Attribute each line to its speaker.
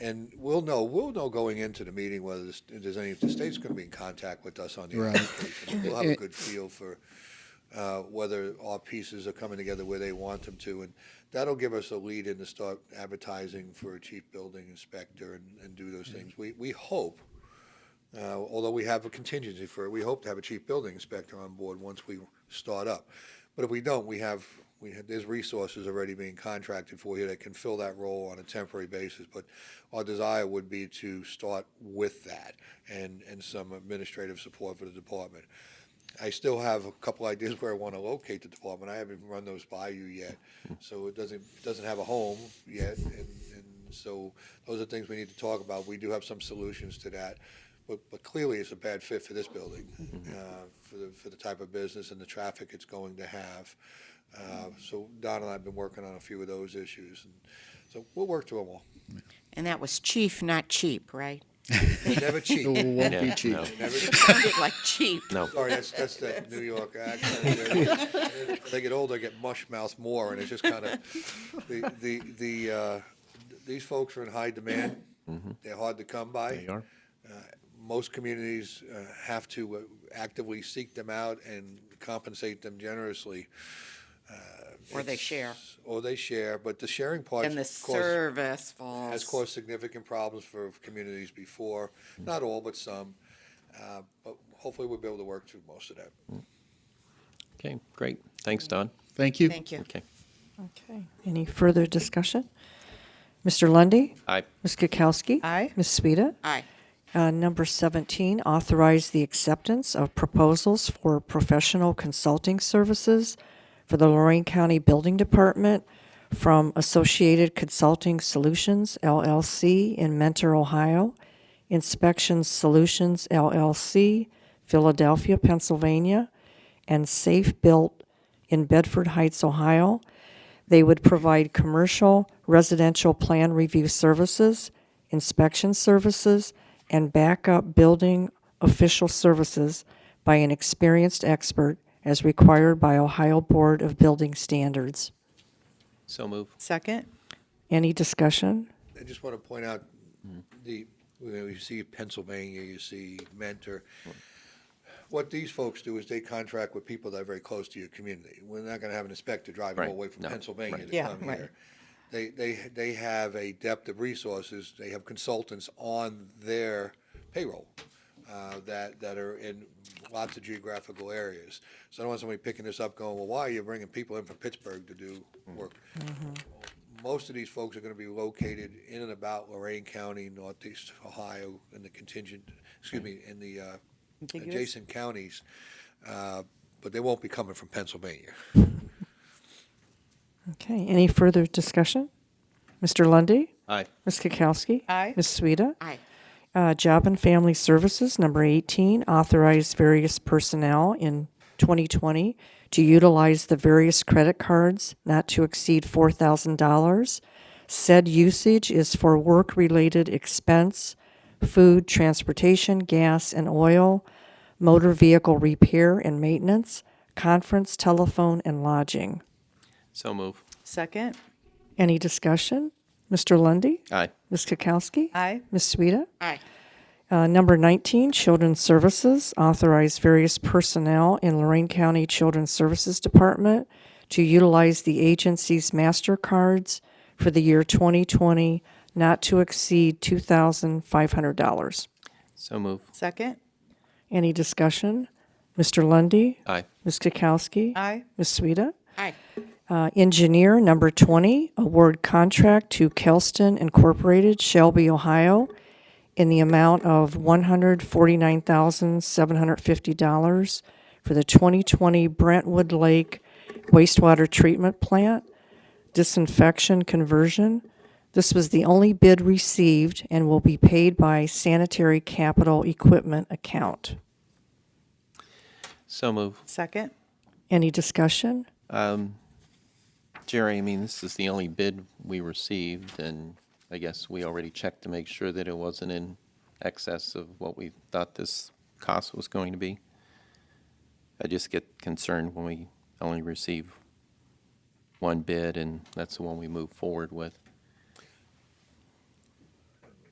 Speaker 1: And we'll know, we'll know going into the meeting whether the st- there's any, the state's going to be in contact with us on the
Speaker 2: Right.
Speaker 1: application. We'll have a
Speaker 2: And-
Speaker 1: good feel for uh, whether our pieces are coming together where they want them to. And that'll give us a lead in to start advertising for a chief building inspector and, and do those things. We, we hope, uh, although we have a contingency for it, we hope to have a chief building inspector on board once we start up. But if we don't, we have, we have, there's resources already being contracted for here that can fill that role on a temporary basis. But our desire would be to start with that and, and some administrative support for the department. I still have a couple ideas where I want to locate the department. I haven't run those by you yet, so it doesn't it doesn't have a home yet, and, and so those are things we need to talk about. We do have some solutions to that, but but clearly it's a bad fit for this building, uh, for the for the type of business and the traffic it's going to have. Uh, so Don and I have been working on a few of those issues, and so we'll work through them all.
Speaker 3: And that was chief, not cheap, right?
Speaker 1: Never cheat.
Speaker 2: It won't be
Speaker 4: Yeah,
Speaker 2: cheap.
Speaker 4: no.
Speaker 1: Never cheat.
Speaker 3: Sounded like cheap.
Speaker 4: No,
Speaker 1: Sorry, that's, that's that New York accent. there. As They get older, I get mush mouth more, and it's just kind of, the, the, the, uh, these folks are in high demand. They're hard to come by.
Speaker 4: Mm-hmm. they are.
Speaker 1: Most communities uh, have to uh, actively seek them out and compensate them generously,
Speaker 3: Or they share.
Speaker 1: or they share, but the sharing part.
Speaker 3: And the service falls.
Speaker 1: has caused significant problems for communities before, not all, but some. Uh, But hopefully, we'll be able to work through most of that.
Speaker 4: Okay, great. Thanks, Don.
Speaker 2: Thank you.
Speaker 3: Thank you.
Speaker 4: Okay.
Speaker 5: Okay, any further discussion? Mr. Lundy,
Speaker 4: Aye.
Speaker 5: Ms. Kukowski?
Speaker 3: Aye.
Speaker 5: Ms. Sueda?
Speaker 3: Aye.
Speaker 5: Uh, Number 17, authorize the acceptance of proposals for professional consulting services for the Lorraine County Building Department from Associated Consulting Solutions LLC in Mentor, Ohio, Inspection Solutions LLC, Philadelphia, Pennsylvania, and Safe Built in Bedford Heights, Ohio. They would provide commercial, residential plan review services, inspection services, and backup building official services by an experienced expert as required by Ohio Board of Building Standards.
Speaker 4: So move.
Speaker 6: Second?
Speaker 5: Any discussion?
Speaker 1: I just want to point out,
Speaker 4: Mm-hmm.
Speaker 1: the, you know, you see Pennsylvania, you see Mentor. What these folks do is they contract with people that are very close to your community. We're not going to have an inspector driving all
Speaker 4: Right,
Speaker 1: the way from
Speaker 4: no,
Speaker 1: Pennsylvania
Speaker 4: right.
Speaker 1: to
Speaker 6: Yeah,
Speaker 1: come
Speaker 6: right.
Speaker 1: here. They, they, they have a depth of resources, they have consultants on their payroll uh, that, that are in lots of geographical areas. So I don't want somebody picking this up going, well, why are you bringing people in from Pittsburgh to do
Speaker 4: Mm.
Speaker 1: work? most of these folks are going to be located in and about Lorraine County, Northeast Ohio, and the contingent, excuse me, in the uh,
Speaker 6: Contiguous?
Speaker 1: adjacent counties, uh, but they won't be coming from Pennsylvania.
Speaker 5: Okay, any further discussion? Mr. Lundy,
Speaker 4: Aye.
Speaker 5: Ms. Kukowski?
Speaker 6: Aye.
Speaker 5: Ms. Sueda?
Speaker 3: Aye.
Speaker 5: Uh, Job and Family Services, number 18, authorize various personnel in 2020 to utilize the various credit cards not to exceed $4,000. Said usage is for work-related expense, food, transportation, gas and oil, motor vehicle repair and maintenance, conference, telephone, and lodging.
Speaker 4: So move.
Speaker 6: Second?
Speaker 5: Any discussion? Mr. Lundy,
Speaker 4: Aye.
Speaker 5: Ms. Kukowski?
Speaker 6: Aye.
Speaker 5: Ms. Sueda?
Speaker 3: Aye.
Speaker 5: Uh, Number 19, Children's Services, authorize various personnel in Lorraine County Children's Services Department to utilize the agency's MasterCards for the year 2020, not to exceed $2,500.
Speaker 4: So move.
Speaker 6: Second?
Speaker 5: Any discussion? Mr. Lundy,
Speaker 4: Aye.
Speaker 5: Ms. Kukowski?
Speaker 6: Aye.
Speaker 5: Ms. Sueda?
Speaker 3: Aye.
Speaker 5: Uh, Engineer number 20, award contract to Kelston Incorporated, Shelby, Ohio, in the amount of $149,750 for the 2020 Brentwood Lake wastewater treatment plant disinfection conversion. This was the only bid received and will be paid by sanitary capital equipment account.
Speaker 4: So move.
Speaker 6: Second?
Speaker 5: Any discussion?
Speaker 4: Jerry, I mean, this is the only bid we received, and I guess we already checked to make sure that it wasn't in excess of what we thought this cost was going to be. I just get concerned when we only receive one bid, and that's the one we move forward with.